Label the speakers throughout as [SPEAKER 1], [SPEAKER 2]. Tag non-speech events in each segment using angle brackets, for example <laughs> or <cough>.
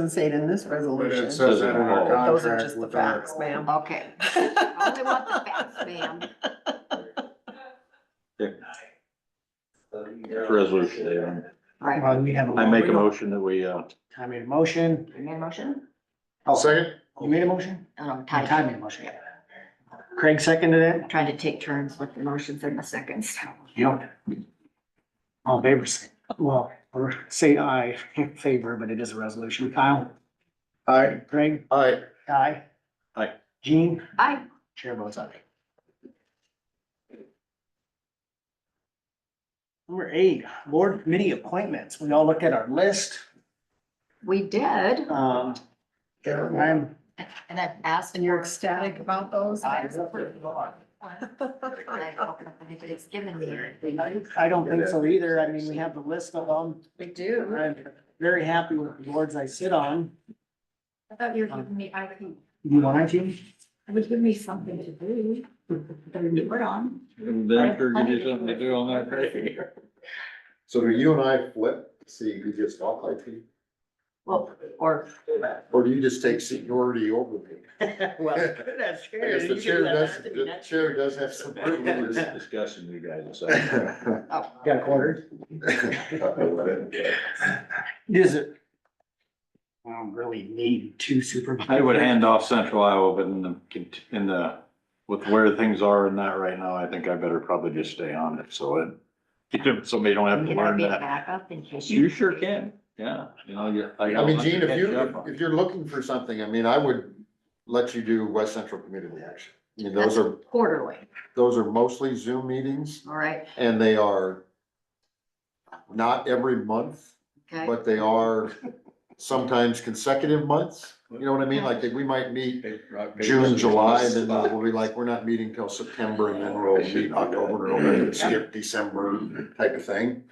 [SPEAKER 1] doesn't say it in this
[SPEAKER 2] But it
[SPEAKER 1] resolution.
[SPEAKER 2] says that in our contract.
[SPEAKER 1] Those are just the
[SPEAKER 2] with our-
[SPEAKER 1] facts, ma'am.
[SPEAKER 3] Okay,
[SPEAKER 1] <laughs>
[SPEAKER 3] only want
[SPEAKER 2] <laughs>
[SPEAKER 3] the facts, ma'am.
[SPEAKER 4] Resolution, David.
[SPEAKER 3] Right,
[SPEAKER 5] Well, Uh, we have. a-
[SPEAKER 4] I make a motion that we, uh,
[SPEAKER 5] I made a motion.
[SPEAKER 3] you made a motion?
[SPEAKER 2] I'll second.
[SPEAKER 5] You made a motion?
[SPEAKER 3] Um,
[SPEAKER 5] I
[SPEAKER 3] Ty,
[SPEAKER 5] made a motion, yeah. Craig seconded it?
[SPEAKER 3] trying to take turns with the motions and the seconds.
[SPEAKER 5] Yep. All in favor, say- well, or say aye <laughs> in favor, but it is a resolution. Kyle,
[SPEAKER 2] Aye.
[SPEAKER 5] Craig,
[SPEAKER 2] Aye.
[SPEAKER 5] aye.
[SPEAKER 4] Aye.
[SPEAKER 5] Gene,
[SPEAKER 3] I,
[SPEAKER 5] chair votes aye. Number eight, board committee appointments. We all looked at our list.
[SPEAKER 3] we did,
[SPEAKER 5] Um, I'm
[SPEAKER 3] and I've asked.
[SPEAKER 1] And you're
[SPEAKER 3] for-
[SPEAKER 1] ecstatic about those?
[SPEAKER 3] I
[SPEAKER 1] <laughs>
[SPEAKER 3] was approved. And I don't know if anybody's given me anything.
[SPEAKER 5] I I don't think so either. I mean, we have the list of them.
[SPEAKER 1] We do.
[SPEAKER 5] I'm very happy with the boards I sit on. Um,
[SPEAKER 3] I thought you were giving me, I would,
[SPEAKER 5] You want to?
[SPEAKER 3] <laughs> it would give me something to do, to report on.
[SPEAKER 4] then for you do something to do on that day.
[SPEAKER 2] So do you and I flip, see who gets off like me?
[SPEAKER 3] Well, or,
[SPEAKER 2] Or do you just take seniority over me?
[SPEAKER 5] Well, that's
[SPEAKER 2] I guess the chair does, the chair does have some privileges.
[SPEAKER 4] <laughs> This discussion you guys <laughs> decided.
[SPEAKER 3] oh,
[SPEAKER 5] Got a quarter? Is it? I don't really need two supervisors.
[SPEAKER 4] I would hand off Central Iowa, but in the, cont- in the, with where things are in that right now, I think I better probably just stay on it, so it. <laughs> Somebody don't have to
[SPEAKER 3] you know,
[SPEAKER 4] learn
[SPEAKER 3] be a
[SPEAKER 4] that.
[SPEAKER 3] backup in case.
[SPEAKER 4] You sure can, yeah, you know, you.
[SPEAKER 2] I mean, Gene, if you, if you're looking for something, I mean, I would let you do West Central Community Action. I mean, those are,
[SPEAKER 3] Quarterly,
[SPEAKER 2] those are mostly Zoom meetings
[SPEAKER 3] all right,
[SPEAKER 2] and they are not every month,
[SPEAKER 3] okay,
[SPEAKER 2] but they are sometimes consecutive months. You know what I mean? Like we might meet June, July, then uh, we'll be like, we're not meeting till September and then we'll meet October, and November, and skip December type of thing.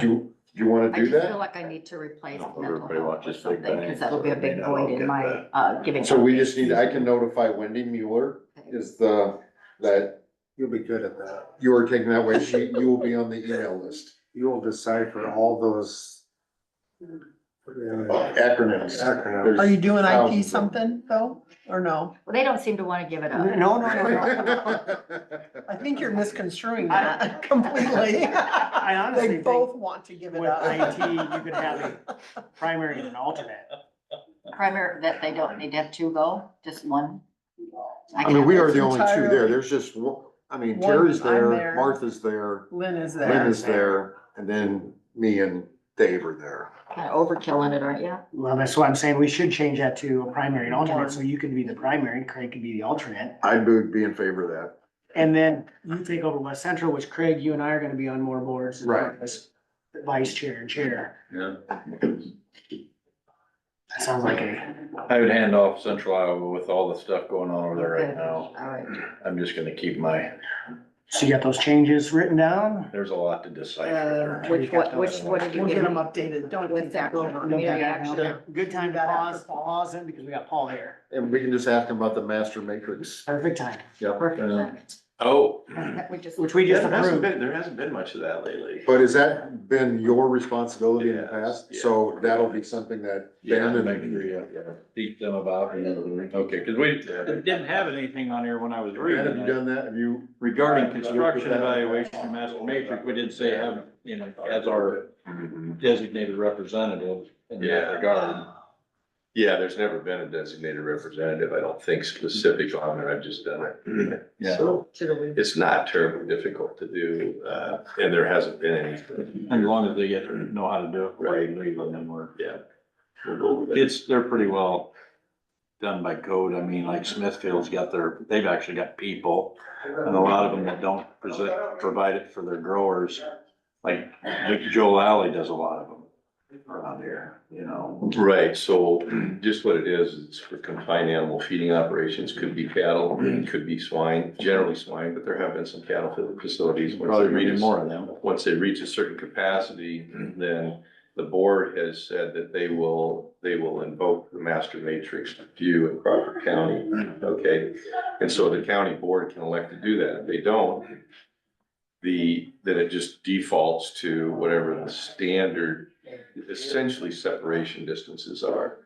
[SPEAKER 2] Do, you do you wanna
[SPEAKER 3] I
[SPEAKER 2] do
[SPEAKER 3] just feel
[SPEAKER 2] that?
[SPEAKER 3] like I need to replace
[SPEAKER 4] Everybody
[SPEAKER 3] mental health or
[SPEAKER 4] watches Big
[SPEAKER 3] something,
[SPEAKER 4] Bang.
[SPEAKER 3] because that'll be a big
[SPEAKER 4] Maybe I'll
[SPEAKER 3] void in
[SPEAKER 4] get
[SPEAKER 3] my,
[SPEAKER 4] that.
[SPEAKER 3] uh, giving.
[SPEAKER 2] So we
[SPEAKER 3] updates.
[SPEAKER 2] just need, I can notify Wendy Mueller
[SPEAKER 3] Okay.
[SPEAKER 2] is the, that. You'll be good at that. You are taking that way, she, you will be on the email list. You will decipher all those. Acronyms. Acronyms.
[SPEAKER 1] Are
[SPEAKER 2] <laughs>
[SPEAKER 1] you doing IT
[SPEAKER 2] Thousands of-
[SPEAKER 1] something though, or no?
[SPEAKER 3] Well, they don't seem to want to give it
[SPEAKER 5] No,
[SPEAKER 3] up.
[SPEAKER 5] no,
[SPEAKER 3] <laughs>
[SPEAKER 5] no, no.
[SPEAKER 1] I think you're misconstruing that <laughs>
[SPEAKER 3] <laughs>
[SPEAKER 1] completely.
[SPEAKER 5] <laughs> I honestly
[SPEAKER 1] They
[SPEAKER 5] think
[SPEAKER 1] both want to give
[SPEAKER 5] with
[SPEAKER 1] it up.
[SPEAKER 5] IT, you could have a primary and an alternate.
[SPEAKER 3] Primary, that they don't need to have two go, just one.
[SPEAKER 2] I mean, we are the
[SPEAKER 1] It's
[SPEAKER 2] only two there,
[SPEAKER 1] entirely-
[SPEAKER 2] there's just, one- I mean,
[SPEAKER 1] One,
[SPEAKER 2] Terry's
[SPEAKER 1] I'm
[SPEAKER 2] there,
[SPEAKER 1] there.
[SPEAKER 2] Martha's there,
[SPEAKER 1] Lynn is
[SPEAKER 2] Lynn
[SPEAKER 1] there.
[SPEAKER 2] is there, and then me and Dave are there.
[SPEAKER 3] Kind of overkilling it, aren't you?
[SPEAKER 5] Well, that's what I'm saying. We should change that to a primary and alternate, so you can be the primary, Craig could be the alternate.
[SPEAKER 2] I would be in favor of that.
[SPEAKER 5] And then you take over West Central, which Craig, you and I are gonna be on more boards. than
[SPEAKER 2] Right.
[SPEAKER 5] as Vice chair and chair.
[SPEAKER 4] Yeah,
[SPEAKER 5] That sounds like a,
[SPEAKER 4] I would hand off Central Iowa with all the stuff going on over there right
[SPEAKER 3] Okay,
[SPEAKER 4] now.
[SPEAKER 3] All right.
[SPEAKER 4] I'm just gonna keep my,
[SPEAKER 5] so you got those changes written down?
[SPEAKER 4] there's a lot to decipher.
[SPEAKER 3] Uh,
[SPEAKER 4] there.
[SPEAKER 3] Which, what, which, what did you
[SPEAKER 1] We'll get
[SPEAKER 3] give
[SPEAKER 1] them
[SPEAKER 3] me?
[SPEAKER 1] updated. Don't
[SPEAKER 3] With
[SPEAKER 1] let that go
[SPEAKER 3] that
[SPEAKER 5] Don't
[SPEAKER 1] over.
[SPEAKER 5] cut
[SPEAKER 3] Yeah,
[SPEAKER 5] that out.
[SPEAKER 3] actually.
[SPEAKER 5] Good time to pause, pause in because we got Paul here.
[SPEAKER 2] And we can just ask him about the master matrix.
[SPEAKER 5] Perfect time,
[SPEAKER 2] Yep.
[SPEAKER 3] Perfect.
[SPEAKER 4] uh, Oh.
[SPEAKER 3] That we just-
[SPEAKER 5] which we just
[SPEAKER 4] There hasn't
[SPEAKER 5] approved.
[SPEAKER 4] been, there hasn't been much of that lately.
[SPEAKER 2] But has that been your responsibility in the
[SPEAKER 4] Yes,
[SPEAKER 2] past?
[SPEAKER 4] yeah.
[SPEAKER 2] So that'll be something that
[SPEAKER 4] Yeah,
[SPEAKER 2] Ben
[SPEAKER 4] I
[SPEAKER 2] and,
[SPEAKER 4] agree, yeah, yeah. Beat them about and everything. Okay, cause we it didn't have anything on here when I was
[SPEAKER 2] Ben, have you
[SPEAKER 4] reading it.
[SPEAKER 2] done that? Have you?
[SPEAKER 4] Regarding construction evaluation and master matrix, we did say have, you know, as our
[SPEAKER 6] Mm-hmm.
[SPEAKER 4] designated representative in that
[SPEAKER 6] Yeah.
[SPEAKER 4] regard.
[SPEAKER 6] Yeah, there's never been a designated representative, I don't think specific on it, I've just done it.
[SPEAKER 4] Yeah.
[SPEAKER 6] So
[SPEAKER 1] Should we-
[SPEAKER 6] it's not terribly difficult to do, uh, and there hasn't been anything.
[SPEAKER 4] As long as they get, know how to do it right, legally, then we're.
[SPEAKER 6] Yeah. We'll go with it.
[SPEAKER 4] It's, they're pretty well done by code. I mean, like Smithfield's got their, they've actually got people. And a lot of them that don't present, provide it for their growers, like Joel Alley does a lot of them around here, you know?
[SPEAKER 6] Right, so just what it is, it's for confined animal feeding operations, could be cattle, could be swine, generally swine, but there have been some cattle facilities. once
[SPEAKER 4] Probably
[SPEAKER 6] they
[SPEAKER 4] reading
[SPEAKER 6] reach-
[SPEAKER 4] more of them.
[SPEAKER 6] once they reach a certain capacity, then the board has said that they will, they will invoke the master matrix view in Crawford County, okay? And so the county board can elect to do that. If they don't, the, then it just defaults to whatever the standard, essentially separation distances are.